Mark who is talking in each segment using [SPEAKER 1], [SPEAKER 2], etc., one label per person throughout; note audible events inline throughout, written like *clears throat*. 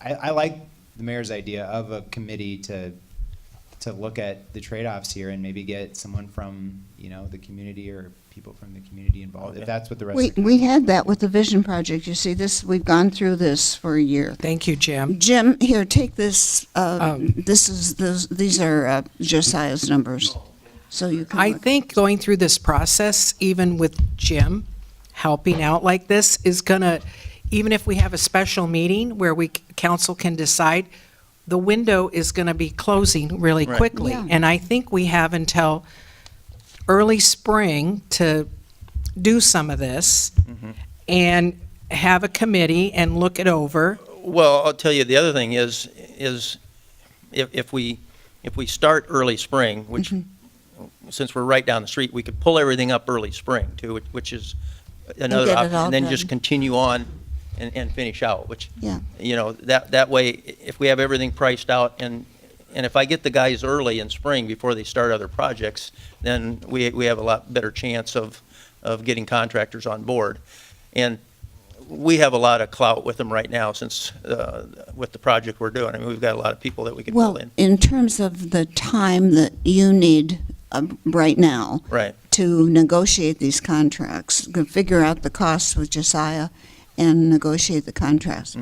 [SPEAKER 1] I, I like the mayor's idea of a committee to, to look at the trade-offs here and maybe get someone from, you know, the community or people from the community involved, if that's what the rest
[SPEAKER 2] We,
[SPEAKER 1] of the
[SPEAKER 2] we had that with the vision project. You see, this, we've gone through this for a year.
[SPEAKER 3] Thank you, Jim.
[SPEAKER 2] Jim, here, take this, uh,
[SPEAKER 3] Um,
[SPEAKER 2] this is, those- these are uh, Josiah's numbers, so you can
[SPEAKER 3] I
[SPEAKER 2] look.
[SPEAKER 3] think going through this process, even with Jim helping out like this, is gonna, even if we have a special meeting where we, council can decide, the window is gonna be closing really
[SPEAKER 4] Right.
[SPEAKER 3] quickly.
[SPEAKER 2] Yeah.
[SPEAKER 3] And I think we have until early spring to do some of this and have a committee and look it over.
[SPEAKER 4] Well, I'll tell you, the other thing is, is if, if we, if we start early spring, which,
[SPEAKER 2] Mm-hmm.
[SPEAKER 4] since we're right down the street, we could pull everything up early spring too, which- which is another
[SPEAKER 2] get it
[SPEAKER 4] option.
[SPEAKER 2] all
[SPEAKER 4] And then just
[SPEAKER 2] done.
[SPEAKER 4] continue on and, and finish out, which,
[SPEAKER 2] Yeah.
[SPEAKER 4] you know, that, that way, i- if we have everything priced out and, and if I get the guys early in spring before they start other projects, then we, we have a lot better chance of, of getting contractors on board. And we have a lot of clout with them right now since, uh, with the project we're doing. I mean, we've got a lot of people that we can pull
[SPEAKER 2] Well,
[SPEAKER 4] in.
[SPEAKER 2] in terms of the time that you need uh, right now
[SPEAKER 4] Right,
[SPEAKER 2] to negotiate these contracts, to figure out the costs with Josiah and negotiate the contracts,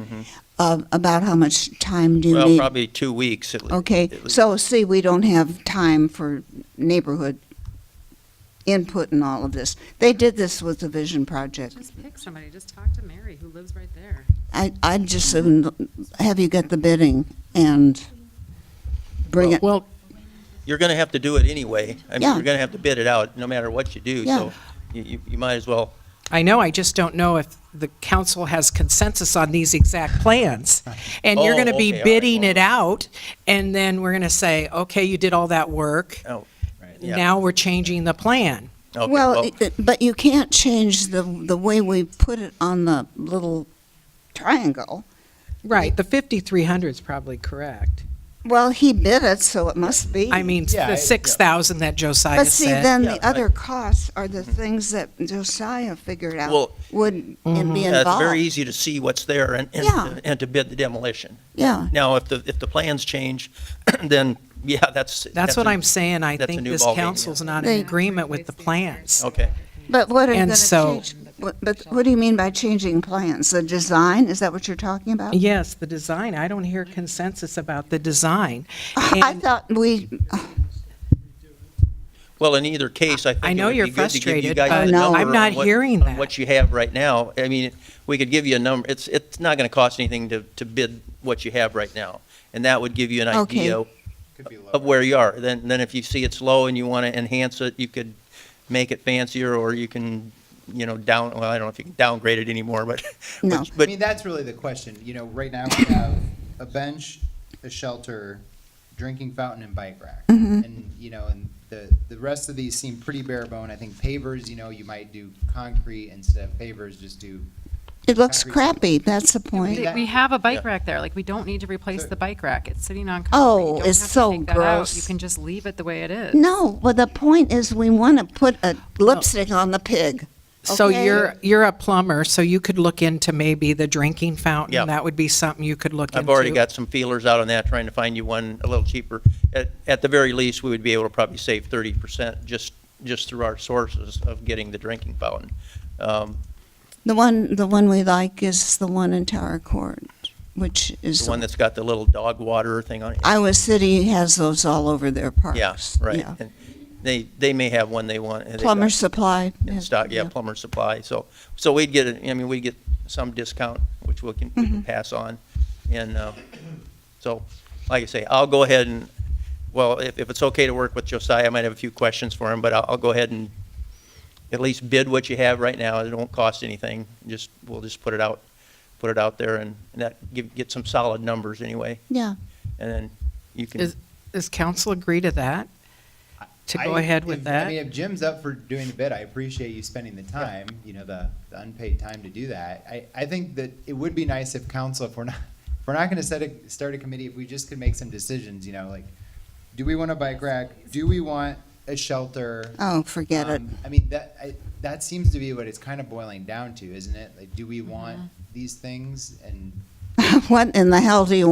[SPEAKER 2] uh, about how much time do you need?
[SPEAKER 4] Mm. Mm-hmm. well, probably two weeks at least.
[SPEAKER 2] Okay, so see, we don't have time for neighborhood input and all of this. They did this with the vision project.
[SPEAKER 5] Just pick somebody, just talk to Mary, who lives right there.
[SPEAKER 2] I, I'd just
[SPEAKER 4] Mm-hmm.
[SPEAKER 2] soon have you get the bidding and bring it.
[SPEAKER 3] Well,
[SPEAKER 4] You're gonna have to do it anyway. I mean,
[SPEAKER 2] Yeah.
[SPEAKER 4] you're gonna have to bid it out no matter what you do,
[SPEAKER 2] Yeah.
[SPEAKER 4] so you, you- you might as well
[SPEAKER 3] I know, I just don't know if the council has consensus on these exact plans. And you're
[SPEAKER 4] Oh,
[SPEAKER 3] going to be
[SPEAKER 4] okay, all right,
[SPEAKER 3] bidding
[SPEAKER 4] well-
[SPEAKER 3] it out, and then we're going to say, okay, you did all that work.
[SPEAKER 4] Oh, right, yeah.
[SPEAKER 3] Now we're changing the plan.
[SPEAKER 4] Okay,
[SPEAKER 2] Well, it- it- but you can't change the, the way we put it on the little triangle.
[SPEAKER 3] Right, the 5,300 is probably correct.
[SPEAKER 2] Well, he bid it, so it must be.
[SPEAKER 3] I mean,
[SPEAKER 1] Yeah, it- yeah.
[SPEAKER 3] the 6,000 that Josiah
[SPEAKER 2] But see,
[SPEAKER 3] said.
[SPEAKER 2] then
[SPEAKER 4] Yeah,
[SPEAKER 2] the
[SPEAKER 4] I-
[SPEAKER 2] other costs are the things that Josiah figured out
[SPEAKER 4] Well-
[SPEAKER 2] would be
[SPEAKER 3] Mm-hmm.
[SPEAKER 4] yeah, it's very
[SPEAKER 2] involved.
[SPEAKER 4] easy to see what's there and, and,
[SPEAKER 2] Yeah.
[SPEAKER 4] and to bid the demolition.
[SPEAKER 2] Yeah,
[SPEAKER 4] Now, if the, if the plans change, *clears throat* then, yeah, that's.
[SPEAKER 3] That's what I'm saying, I
[SPEAKER 4] that's a
[SPEAKER 3] think
[SPEAKER 4] new
[SPEAKER 3] this
[SPEAKER 4] ballgame, yeah.
[SPEAKER 3] council's not
[SPEAKER 2] They-
[SPEAKER 3] in agreement with the plans.
[SPEAKER 4] Okay.
[SPEAKER 2] But what are you
[SPEAKER 3] And
[SPEAKER 2] going to
[SPEAKER 3] so-
[SPEAKER 2] change? What- But what do you mean by changing plans? The design, is that what you're talking
[SPEAKER 4] Oh.
[SPEAKER 2] about?
[SPEAKER 3] Yes, the design, I don't hear consensus about the design.
[SPEAKER 2] *laughs* I
[SPEAKER 3] And-
[SPEAKER 2] thought we,
[SPEAKER 4] Well, in either case, I think.
[SPEAKER 3] I
[SPEAKER 4] it
[SPEAKER 3] know
[SPEAKER 4] would be
[SPEAKER 3] you're
[SPEAKER 4] good to give you
[SPEAKER 3] frustrated,
[SPEAKER 4] guys
[SPEAKER 3] but
[SPEAKER 4] a
[SPEAKER 2] No.
[SPEAKER 4] number
[SPEAKER 2] I'm
[SPEAKER 4] on
[SPEAKER 3] not
[SPEAKER 4] what-
[SPEAKER 3] hearing
[SPEAKER 4] on
[SPEAKER 3] that.
[SPEAKER 4] What you have right now. I mean, we could give you a number. It's, it's not going to cost anything to, to bid what you have right now. And that would give you an
[SPEAKER 2] Okay.
[SPEAKER 4] idea
[SPEAKER 1] could be lower.
[SPEAKER 4] of where you are. Then, then if you see it's low and you want to enhance it, you could make it fancier or you can, you know, down, well, I don't know if you can downgrade it anymore, but.
[SPEAKER 2] No.
[SPEAKER 4] but-
[SPEAKER 1] I
[SPEAKER 4] But
[SPEAKER 1] mean, that's really the question, you know, right now we have a bench, a shelter, drinking fountain and bike rack. And, you know, and the, the rest of these seem pretty bare bone, I think pavers, you know, you might do concrete instead of pavers, just do
[SPEAKER 2] it looks
[SPEAKER 1] Concrete.
[SPEAKER 2] crappy, that's the point.
[SPEAKER 1] Yeah.
[SPEAKER 5] We have a bike
[SPEAKER 4] Yeah.
[SPEAKER 5] rack there, like, we don't need to replace
[SPEAKER 1] So-
[SPEAKER 5] the bike rack, it's sitting on concrete.
[SPEAKER 2] Oh,
[SPEAKER 5] You don't
[SPEAKER 2] it's
[SPEAKER 5] have to
[SPEAKER 2] so
[SPEAKER 5] take that out.
[SPEAKER 2] gross.
[SPEAKER 5] You can just leave it the way it is.
[SPEAKER 2] No, well, the point is we want to put a lipstick on the pig.
[SPEAKER 3] So
[SPEAKER 2] Okay.
[SPEAKER 3] you're, you're a plumber, so you could look into maybe the drinking
[SPEAKER 4] Yeah.
[SPEAKER 3] fountain. That would be something you could look into.
[SPEAKER 4] I've already got some feelers out on that, trying to find you one a little cheaper. At, at the very least, we would be able to probably save thirty percent just, just through our sources of getting the drinking fountain. Um,
[SPEAKER 2] The one, the one we like is the one in Tower Court, which is,
[SPEAKER 4] The one that's got the little dog water thing on it.
[SPEAKER 2] Iowa City has those all over their parks.
[SPEAKER 4] Yeah, right.
[SPEAKER 2] yeah.
[SPEAKER 4] And They, they may have one they want. and they've got
[SPEAKER 2] Plumber Supply.
[SPEAKER 4] in
[SPEAKER 2] has-
[SPEAKER 4] Stock, yeah, plumber supply. So, so we'd get, a- I mean, we'd get some discount, which we can, we can pass on. And, uh, so, like I say, I'll go ahead and, well, if, if it's okay to work with Josiah, I might have a few questions for him, but I'll, I'll go ahead and at least bid what you have right now. It won't cost anything. Just, we'll just put it out, put it out there and, and that, give, get some solid numbers anyway.
[SPEAKER 2] Yeah,
[SPEAKER 4] And then you can.
[SPEAKER 3] Is- Does council agree to that? To go
[SPEAKER 1] I-
[SPEAKER 3] ahead with
[SPEAKER 1] if- I mean,
[SPEAKER 3] that?
[SPEAKER 1] if Jim's up for doing the bid, I appreciate you spending the time, you know, the, the unpaid time to do that. I, I think that it would be nice if council, if we're not, if we're not gonna set a, start a committee, if we just could make some decisions, you know, like, do we want a bike rack? Do we want a shelter?
[SPEAKER 2] oh, forget it.
[SPEAKER 1] Um, I mean, that, I, that seems to be what it's kind of boiling down to, isn't it? Like, do we want these things? And
[SPEAKER 2] *laughs* what in the hell do you